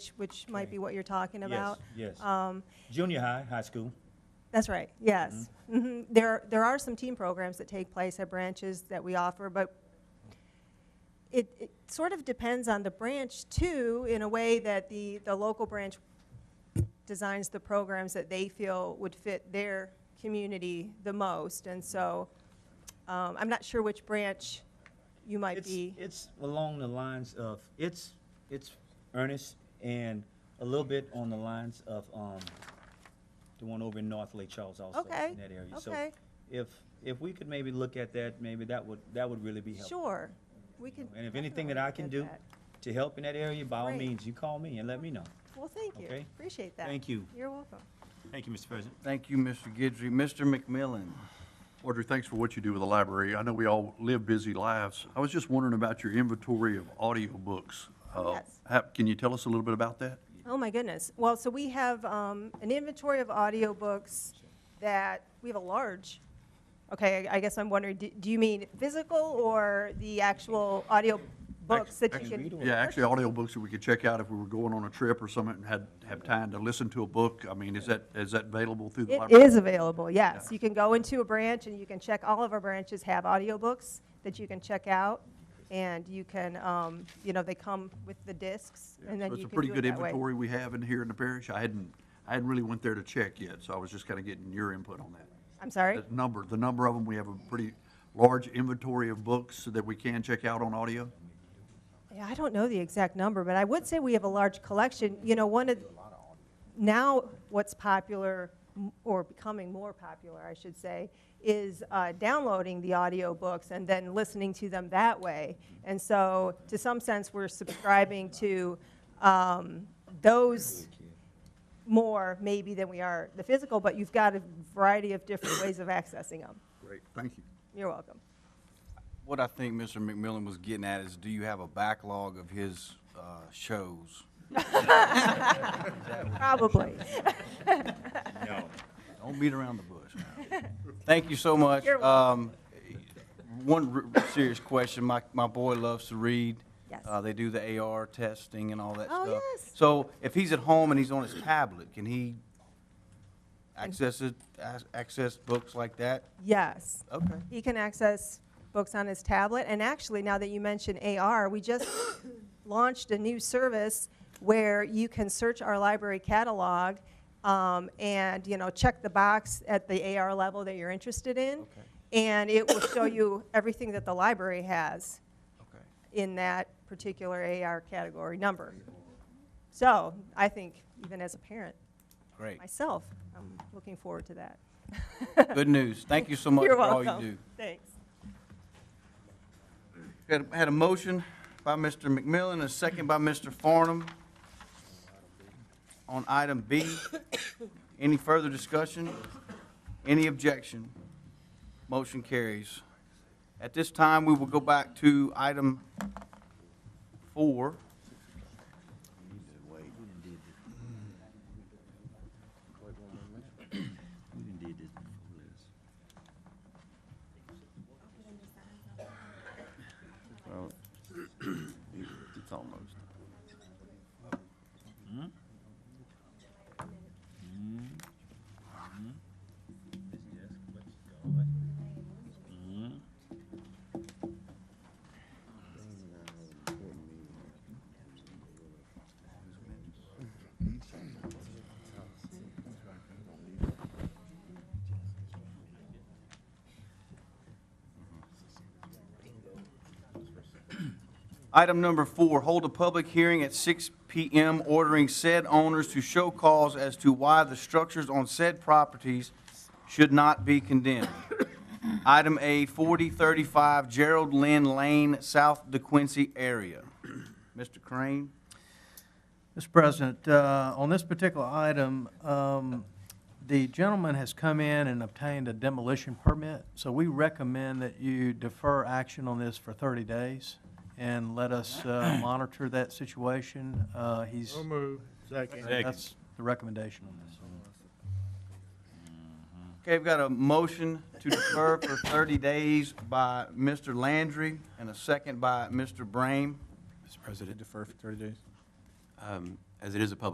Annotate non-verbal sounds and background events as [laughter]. which might be what you're talking about. Yes, yes. Um, Junior high, high school. That's right, Mm-hmm. yes. Mhm. There, there are some team programs that take place at branches that we offer, but it, it sort of depends on the branch too, in a way that the, the local branch designs the programs that they feel would fit their community the most. And so, um, I'm not sure which branch you might It's- be. It's along the lines of, it's, it's earnest and a little bit on the lines of, um, the one over in North Lake Charles also. Okay, In that area. So okay. if, if we could maybe look at that, maybe that would, that would really be helpful. Sure, we can. And if anything that definitely I can look do at to help in that area, by all Great. means, you call me and let me know. that. Well, thank you, Okay. appreciate that. Thank you. You're welcome. Thank you, Mr. President. Thank you, Mr. Guidry. Mr. McMillan? Audrey, thanks for what you do with the library. I know we all live busy lives. I was just wondering about your inventory of audiobooks. Uh, Yes. ha- Can you tell us a little bit about that? Oh, my goodness. Well, so we have um, an inventory of audiobooks that, we have a large, okay, I I guess I'm wondering, do do you mean physical or the actual audiobooks that you Actually, can? Yeah, actually audiobooks that we could check out if we were going on a trip or something and had, have time to listen to a book. I mean, is that, is that available through the It library? is available, yes. You can go into a branch and you can check, all of our branches have audiobooks that you can check out. And you can, um, you know, they come with the discs Yeah, and then so you It's a can pretty do it good that way. inventory we have in here in the parish. I hadn't, I hadn't really went there to check yet, so I was just kind of getting your input on that. I'm sorry? That number, the number of them, we have a pretty large inventory of books that we can check out on audio. Yeah, I don't know the exact number, but I would say we have a large collection. You know, one of, now what's popular, m- or becoming more popular, I should say, is uh, downloading the audiobooks and then listening to them that way. And so, to some sense, we're subscribing to um, those more maybe than we are the physical, but you've got a variety of different ways of accessing them. Great, thank you. You're welcome. What I think Mr. McMillan was getting at is, do you have a backlog of his uh, shows? Probably. No. Don't beat around the bush. [laughs] Thank you so much. You're Um, One r- serious question, my, my boy loves to read. Yes. Uh, They do the AR testing and all that Oh, stuff. yes. So if he's at home and he's on his tablet, can he access it, ac- access books like that? yes. Okay. He can access books on his tablet, and actually, now that you mention AR, we just [coughs] launched a new service where you can search our library catalog um, and, you know, check the box at the AR level that you're interested in, Okay. and it will show you [coughs] everything that the library has Okay. in that particular AR category number. So, I think, even as a parent Great. myself, I'm looking forward to that. [laughs] Good news. Thank you so much You're for all you welcome. do. Thanks. Had, had a motion by Mr. McMillan, a second by Mr. Farnum on item B. Any further discussion? Any objection? Motion carries. At this time, we will go back to item four. It's almost. Item number four, hold a public hearing at 6 PM ordering said owners to show cause as to why the structures on said properties should not be condemned. [coughs] Item A, 4035 Gerald Lynn Lane, South DeQuincy area. Mr. Crane? Mr. President, uh, on this particular item, um, the gentleman has come in and obtained a demolition permit, so we recommend that you defer action on this for 30 days and let us uh, monitor that situation. Uh, He's, that's the recommendation on this. Okay, we've got a motion to defer for 30 days by Mr. Landry and a second by Mr. Brame. Mr. President, defer for 30 days? um, as it is a public